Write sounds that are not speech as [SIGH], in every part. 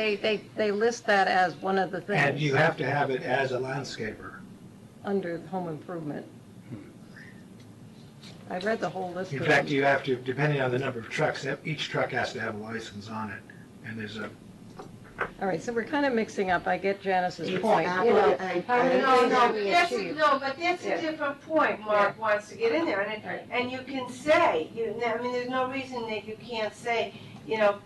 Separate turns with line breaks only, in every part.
They, they, they list that as one of the
And
things
you have to have it as a landscaper.
under home improvement. I read the whole list.
In
of
fact,
them.
you have to, depending on the number of trucks, that- each truck has to have a license on it. And there's a,
All right, so we're kind of mixing up. I get Janice's
It's
point.
not
You know,
what I-
I don't
No,
think
no,
that we
that's, a-
achieved.
no, but that's
Yeah.
a different point Mark wants to get in there, and,
Right.
it- and you can say, you, know, I mean, there's no reason that you can't say, you know,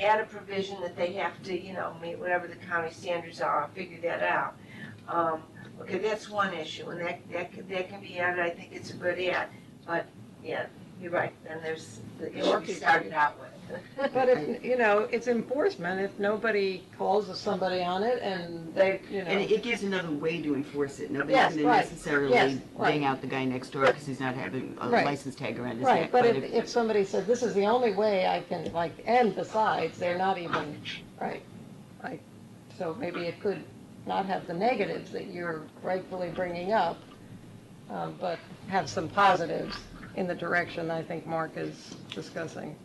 add a provision that they have to, you know, meet whatever the county standards are, I'll figure that out. Um, okay, that's one issue, and that, that, can- that can be added, I think it's a good add, but, yeah, you're right, then there's the issue we started out with.
But if, you know, it's enforcement. If nobody calls somebody on it and they, you
And
know,
it gives another way to enforce it. Nobody's
Yes,
going to
right. Yes,
necessarily
right.
bang out the guy next door because he's not having a
Right.
license tag around his
right,
neck.
but if, if somebody said, this is the only way I can, like, and besides, they're not even, right. I, so maybe it could not have the negatives that you're rightfully bringing up, um, but have some positives in the direction I think Mark is discussing.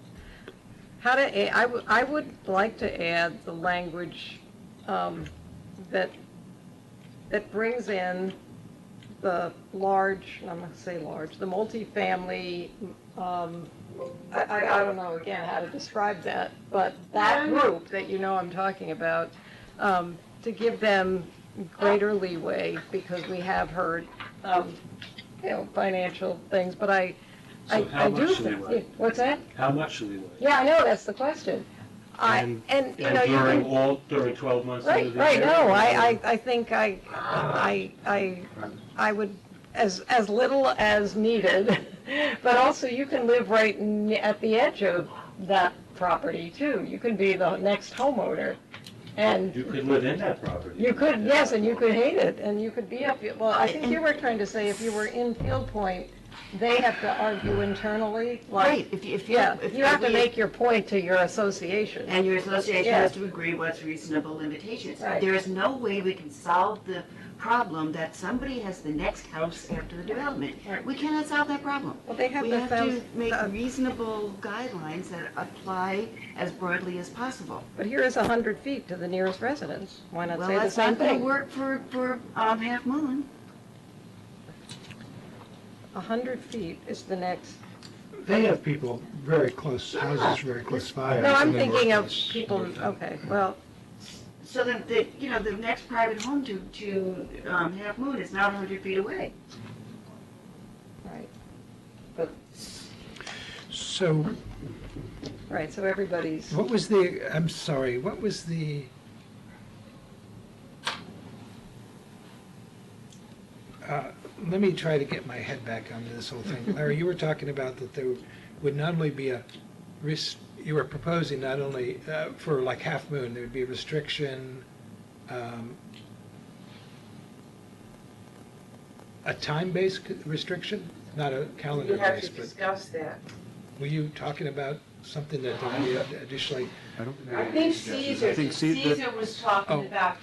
How to, a- I, w- I would like to add the language, um, that, that brings in the large, I'm gonna say large, the multifamily, um, I, I, I don't know again how to describe that, but that group that you know I'm talking about, um, to give them greater leeway, because we have heard, um, you know, financial things, but I, I,
So how
I do.
much
think-
leeway?
What's that?
How much leeway?
Yeah, I know, that's the question. I,
And-
and, you know,
And
you
during
can,
all, during 12 months of the
right,
year?
right, no, I, I, I think I, I, I, I would, as, as little as needed, [LAUGHS] but also you can live right n- at the edge of that property too. You can be the next homeowner,
You
and
could live in that property.
you could, yes, and you could hate it, and you could be up, well, I think you were trying to say if you were in Field Point, they have to argue internally,
Right,
like,
if you, if you.
yeah,
if
you have to
we-
make your point to your association.
And your association
Yeah.
has to agree what's reasonable limitations.
Right.
There is no way we can solve the problem that somebody has the next house after the development.
Right.
We cannot solve that problem.
Well, they have
We
the
have to
thousand-
make
uh,
reasonable guidelines that apply as broadly as possible.
But here is 100 feet to the nearest residence. Why not
Well,
say the
that's
same
not gonna
thing?
work for, for, um, Half Moon.
100 feet is the next,
they have people very close, houses very close by.
no, I'm
They work
thinking of
this-
people, okay, well,
So then, the, you know, the next private home to, to, um, Half Moon is not hundred feet away.
right,
So
right, so everybody's,
what was the, I'm sorry, what was the? Uh, Let me try to get my head back onto this whole thing. Larry, you were talking about that there would not only be a risk, you were proposing not only uh, for like Half Moon, there would be a restriction, um, a time-based restriction, not a
You have to
calendar-based, but.
discuss that.
Were you talking about something that I additionally,
I don't
I think Caesar,
I think Ce- that-
Caesar was talking
Oh.
about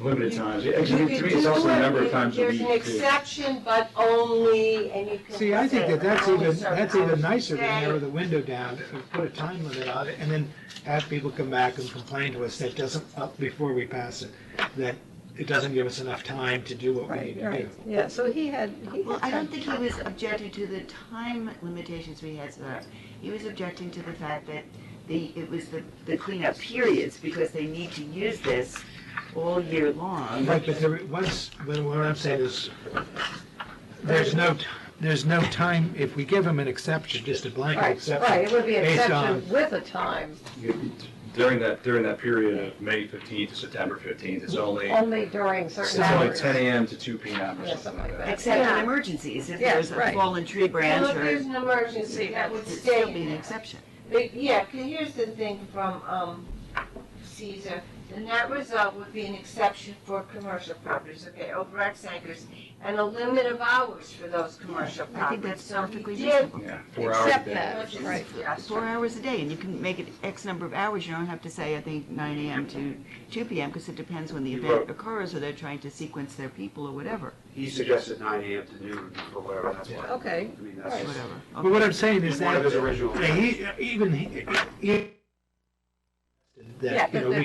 Limited times.
You could do it, There's an exception, but only, and you can.
See, I think that that's
only
even,
certain
that's even
hours
nicer to
a day.
narrow the window down, to put a time limit on it, and then have people come back and complain to us that doesn't, up before we pass it, that it doesn't give us enough time to do what we
right,
need to do.
right, yeah, so he had, he
Well, I
had,
don't think he was objecting to the time limitations we had set up. He was objecting to the fact that the, it was the, the cleanup periods, because they need to use this all year long.
Right, but there was, but what I'm saying is, there's no, t- there's no time, if we give them an exception, just a blanket
right,
exception.
right, it would be an
based
exception
on-
with a time,
During that, during that period of May 15th to September 15th, it's only,
only during
it's
certain
only
hours.
10 AM to 2 PM
Yeah,
or something like that.
Except in
Yeah.
emergencies, if
Yeah,
there's a
right.
fallen tree
Well,
branch
if
or.
there's
It'd
an emergency, that would stay.
still be
in
an
there.
exception.
But, yeah, 'cause here's the thing from, um, Caesar, the net result would be an exception for commercial properties, okay, over X acres, and a limit of hours for those commercial
I think
properties,
that's
so
perfectly
he
reasonable.
did.
Yeah, four hours a
Except
day.
that, right,
Four hours a day, and you can make it X number of hours, you don't have to say, I think, nine AM to two PM, because it depends when the event occurs, or they're trying to sequence their people or whatever,
He suggested nine AM to noon or whatever, that's why.
okay,
I mean, that's
whatever.
But what I'm saying is
one of his
that,
original.
Yeah, he, even, he- he- that,
Yeah,
you know,
but
we